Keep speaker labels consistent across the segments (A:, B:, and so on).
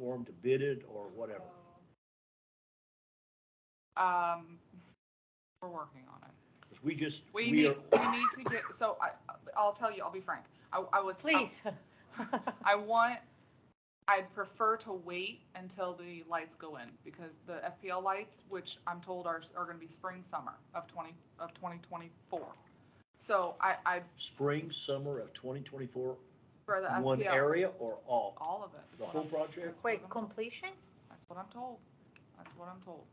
A: for them to bid it or whatever?
B: Um, we're working on it.
A: 'Cause we just,
B: We
A: we
B: need,
A: are,
B: we need to get, so I, I'll tell you, I'll be frank. I, I was.
C: Please.
B: I want, I'd prefer to wait until the lights go in because the FPL lights, which I'm told are, are gonna be spring, summer of twenty, of twenty twenty-four. So I, I,
A: spring, summer of twenty twenty-four,
B: for the
A: one
B: FPL,
A: area or all?
B: all of it. is
A: The
B: what
A: whole
B: I'm-
A: project?
B: that's what
C: Wait,
B: I'm-
C: completion?
B: That's what I'm told. That's what I'm told.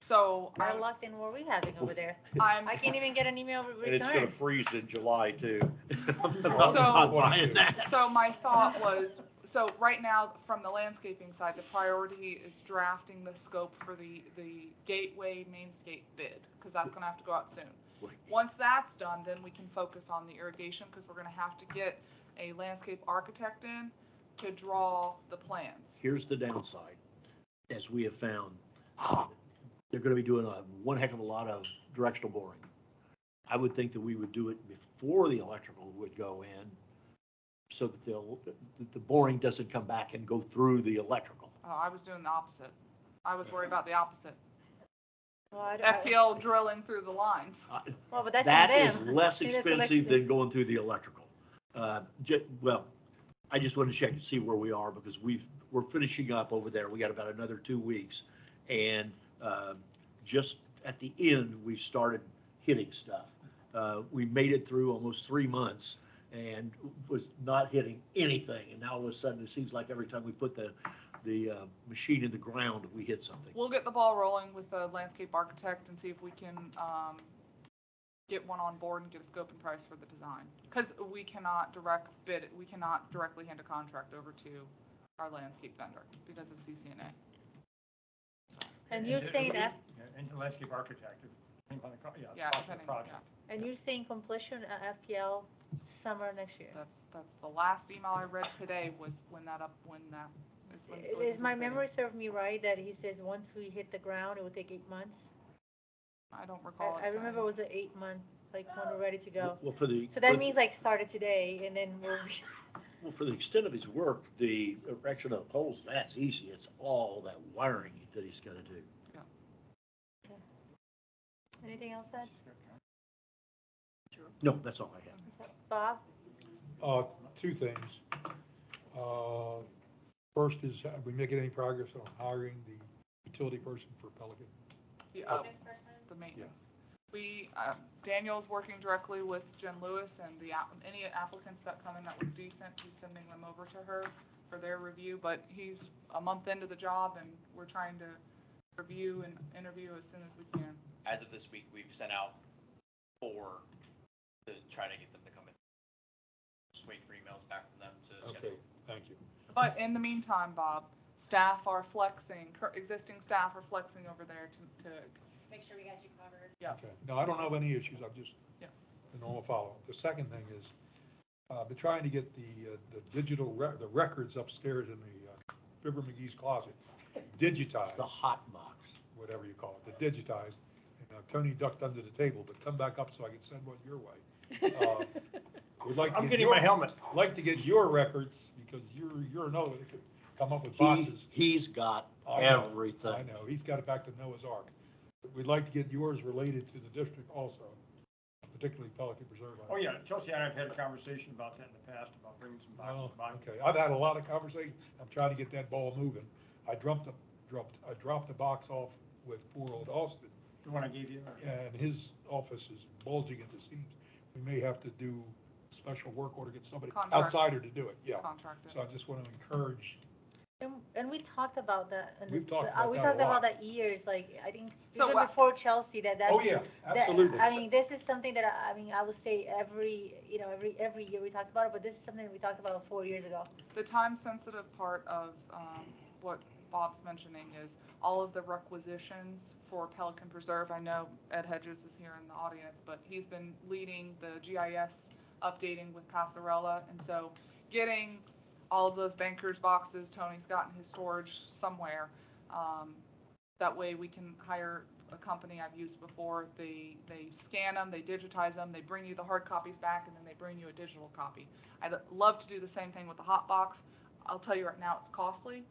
B: So
C: More
B: I'm,
C: luck than what we having over there.
B: I'm,
C: I can't even get an email re-
A: And it's gonna
C: return.
A: freeze in July too. I'm
B: So-
A: not buying that.
B: so my thought was, so right now, from the landscaping side, the priority is drafting the scope for the, the gateway mainscape bid, because that's gonna have to go out soon. Once that's done, then we can focus on the irrigation, because we're gonna have to get a landscape architect in to draw the plans.
A: Here's the downside, as we have found, they're gonna be doing a, one heck of a lot of directional boring. I would think that we would do it before the electrical would go in, so that they'll, that the boring doesn't come back and go through the electrical.
B: Oh, I was doing the opposite. I was worried about the opposite.
C: Well, I don't- I-
B: FPL drilling through the lines.
A: I-
C: Well, but that's
A: That
C: on
A: is
C: them.
A: less
C: It is
A: expensive than
C: electric.
A: going through the electrical. Uh, ju- well, I just wanted to check and see where we are because we've, we're finishing up over there. We got about another two weeks. And, um just at the end, we started hitting stuff. Uh, we made it through almost three months and was not hitting anything. And now all of a sudden, it seems like every time we put the, the, uh, machine in the ground, we hit something.
B: We'll get the ball rolling with the landscape architect and see if we can um, get one on board and get a scope and price for the design. Because we cannot direct bid, we cannot directly hand a contract over to our landscape vendor because of CCNA.
C: And you're saying F,
D: Yeah, And the landscape architect, depending on the, co- yeah,
B: Yeah,
D: cost of the
B: depending,
D: project.
B: yeah,
C: and you're saying completion uh, FPL summer next year.
B: that's, that's the last email I read today was when that up, when that is when. it was
C: Is my
B: anticipated.
C: memory serve me right that he says once we hit the ground, it will take eight months?
B: I don't recall.
C: I, I
B: it
C: remember it
B: saying.
C: was an eight month, like when we're ready to go.
A: Well, for the.
C: So
A: for-
C: that means like started today and then we'll be,
A: Well, for the extent of his work, the erection of poles, that's easy. It's all that wiring that he's gonna do.
C: anything else that?
A: No, that's all I have.
C: Bob,
E: Uh, two things. Uh, First is, are we making any progress on hiring the utility person for Pelican?
B: Yeah, oh, The maintenance. We, uh, Daniel's working directly with Jen Lewis and the, app- any applicants that come in that look decent, he's sending them over to her for their review, but he's a month into the job and we're trying to review and interview as soon as we can.
F: as of this week, we've sent out four to try to get them to come in. Just waiting for emails back from them to
E: Okay,
F: schedule.
E: thank you.
B: But in the meantime, Bob, staff are flexing, cur- existing staff are flexing over there to, to,
G: make sure we got you covered.
B: Yeah.
E: Okay. No, I don't have any issues, I'm just,
B: Yeah.
E: the normal follow-up. The second thing is, uh, I've been trying to get the, uh, the digital, re- the records upstairs in the uh, Fibber McGee's closet digitized.
A: The hot box.
E: whatever you call it, the digitized. And uh, Tony ducked under the table, but come back up so I can send one your way. Uh, Would like to
D: I'm
E: get
D: getting
E: your-
D: my helmet.
E: Like to get your records because you're, you're Noah that could come up with
A: He,
E: boxes.
A: he's got
E: I know, I
A: everything.
E: know, he's got it back to Noah's Ark. But We'd like to get yours related to the district also, particularly Pelican Preserve.
D: Oh, yeah, Chelsea and I have had a conversation about that in the past, about bringing some boxes
E: Oh,
D: to buy.
E: Okay, I've had a lot of conversation. I'm trying to get that ball moving. I dropped, a dropped, I dropped a box off with poor old Austin
D: The one I gave you. or-
E: and his office is bulging at the seams. We may have to do special work order, get somebody
B: Contract.
E: outsider to do it, yeah.
B: to contract it.
E: So I just want to encourage,
C: and, and we talked about that. and
E: We've talked
C: the- uh,
E: about
C: We
E: that a
C: talked about
E: lot.
C: that years, like, I think,
B: So
C: even
B: what-
C: before Chelsea, that that's.
E: oh, yeah,
C: that-
E: absolutely.
C: I mean, this is something that, I I mean, I would say every, you know, every, every year we talked about it, but this is something we talked about four years ago.
B: The time-sensitive part of um, what Bob's mentioning is all of the requisitions for Pelican Preserve. I know Ed Hedges is here in the audience, but he's been leading the GIS updating with Passarella, and so getting all of those bankers boxes Tony's got in his storage somewhere. um, That way we can hire a company I've used before. They, they scan them, they digitize them, they bring you the hard copies back, and then they bring you a digital copy. I'd love to do the same thing with the hot box. I'll tell you right now, it's costly,